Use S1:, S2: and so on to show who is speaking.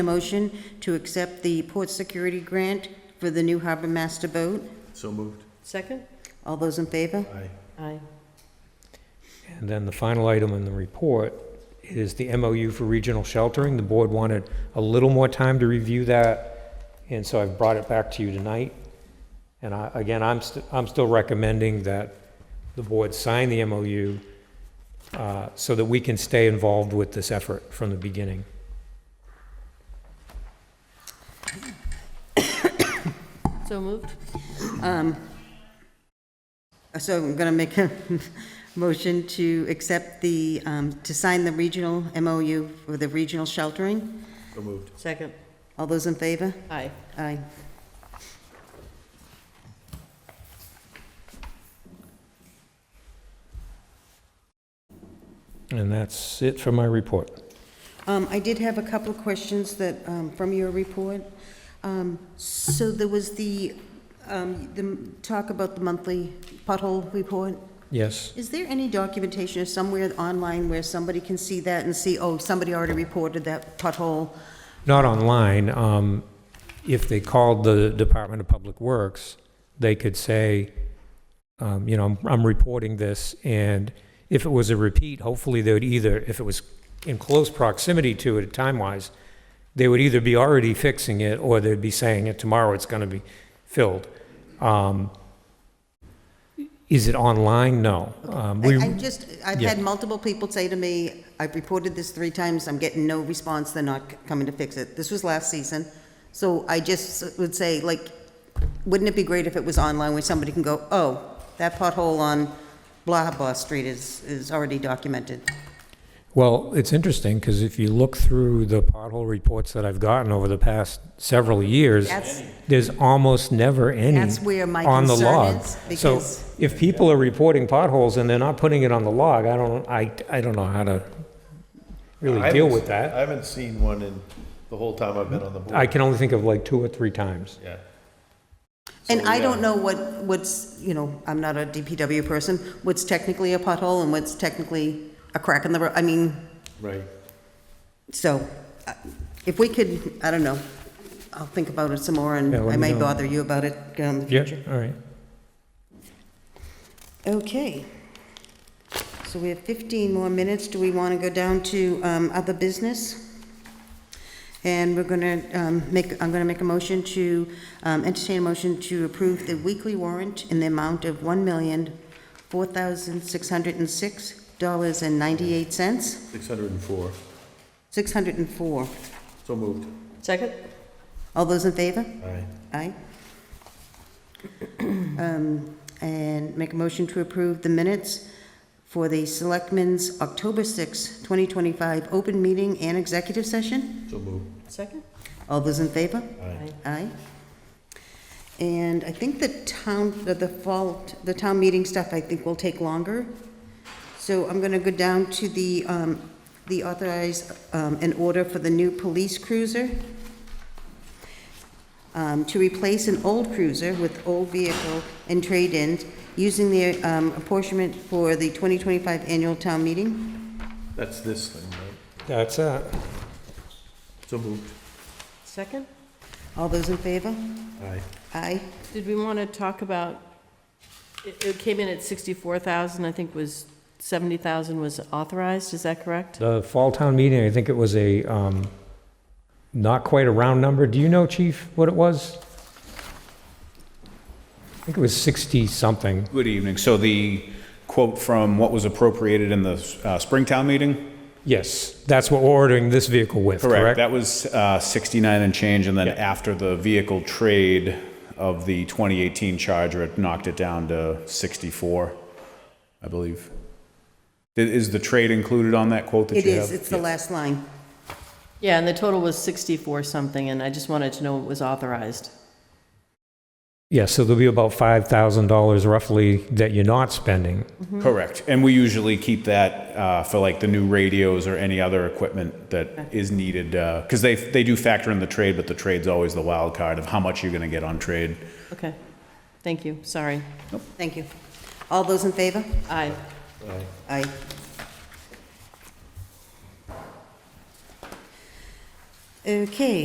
S1: A motion to accept the port security grant for the new harbor master boat.
S2: So moved.
S3: Second?
S1: All those in favor?
S2: Aye.
S3: Aye.
S4: And then the final item in the report is the MOU for regional sheltering. The board wanted a little more time to review that, and so I've brought it back to you tonight. And I, again, I'm, st- I'm still recommending that the board sign the MOU uh, so that we can stay involved with this effort from the beginning.
S3: So moved?
S1: Uh, So I'm going to make a motion to accept the, um, to sign the regional MOU for the regional sheltering.
S2: So moved.
S3: Second?
S1: All those in favor?
S3: Aye.
S1: Aye.
S4: And that's it for my report.
S1: Um, I did have a couple of questions that, um, from your report. Um, So there was the, um, the talk about the monthly pothole report.
S4: Yes?
S1: Is there any documentation or somewhere online where somebody can see that and see, oh, somebody already reported that pothole?
S4: Not online. Um, If they called the Department of Public Works, they could say, um, you know, I'm- I'm reporting this, and if it was a repeat, hopefully they would either, if it was in close proximity to it time-wise, they would either be already fixing it, or they'd be saying it tomorrow it's going to be filled. Um, Is it online? No. Um,
S1: I-
S4: we-
S1: I'm just, I've
S4: Yeah.
S1: had multiple people say to me, I've reported this three times, I'm getting no response, they're not c- coming to fix it. This was last season. So I just would say, like, wouldn't it be great if it was online where somebody can go, oh, that pothole on blah blah street is, is already documented?
S4: Well, it's interesting, because if you look through the pothole reports that I've gotten over the past several years,
S1: That's-
S4: there's almost never any
S1: That's where my
S4: on the
S1: concern
S4: log.
S1: is,
S4: So
S1: because-
S4: if people are reporting potholes and they're not putting it on the log, I don't, I, I don't know how to really deal with
S2: I
S4: that.
S2: haven't seen one in the whole time I've been on the board.
S4: I can only think of like two or three times.
S2: Yeah.
S1: And
S2: So,
S1: I
S2: yeah.
S1: don't know what, what's, you know, I'm not a DPW person, what's technically a pothole and what's technically a crack in the road, I mean,
S2: Right.
S1: so, uh, if we could, I don't know, I'll think about it some more, and
S4: Yeah, let
S1: I
S4: me
S1: may
S4: know.
S1: bother you about it um, in the
S4: Yeah,
S1: future.
S4: all right.
S1: Okay. So we have 15 more minutes. Do we want to go down to um, other business? And we're going to make, I'm going to make a motion to, um, entertain a motion to approve the weekly warrant in the amount of $1,4606.98.
S2: Six hundred and four.
S1: 604.
S2: So moved.
S3: Second?
S1: All those in favor?
S2: Aye.
S1: Aye. Um, And make a motion to approve the minutes for the Selectmen's October sixth, 2025 open meeting and executive session.
S2: So moved.
S3: Second?
S1: All those in favor?
S2: Aye.
S1: Aye. And I think the town, the- the fall, the town meeting stuff, I think will take longer. So I'm going to go down to the, um, the authorized, um, an order for the new police cruiser um, to replace an old cruiser with old vehicle and trade-in, using the um, apportionment for the 2025 annual town meeting.
S2: That's this thing, right?
S4: That's uh, it.
S2: So moved.
S3: Second?
S1: All those in favor?
S2: Aye.
S1: Aye.
S3: Did we want to talk about, it it came in at 64,000, I think was, 70,000 was authorized, is that correct?
S4: The fall town meeting, I think it was a, um, not quite a round number. Do you know, chief, what it was? I think it was 60-something.
S5: Good evening. So the quote from what was appropriated in the uh, Springtown meeting?
S4: Yes, that's what we're ordering this vehicle with, correct?
S5: That was uh, 69 and change, and then
S4: Yeah.
S5: after the vehicle trade of the 2018 Charger, it knocked it down to 64, I believe. I- Is the trade included on that quote that
S1: It
S5: you have?
S1: is, it's the last line.
S3: Yeah, and the total was 64 something, and I just wanted to know what was authorized.
S4: Yeah, so there'll be about $5,000 roughly that you're not spending.
S1: Mm-hmm.
S5: Correct. And we usually keep that uh, for like the new radios or any other equipment that is needed, because they, they do factor in the trade, but the trade's always the wild card of how much you're going to get on trade.
S3: Okay, thank you, sorry.
S1: Thank you. All those in favor?
S3: Aye.
S2: Aye.
S1: Aye. Okay,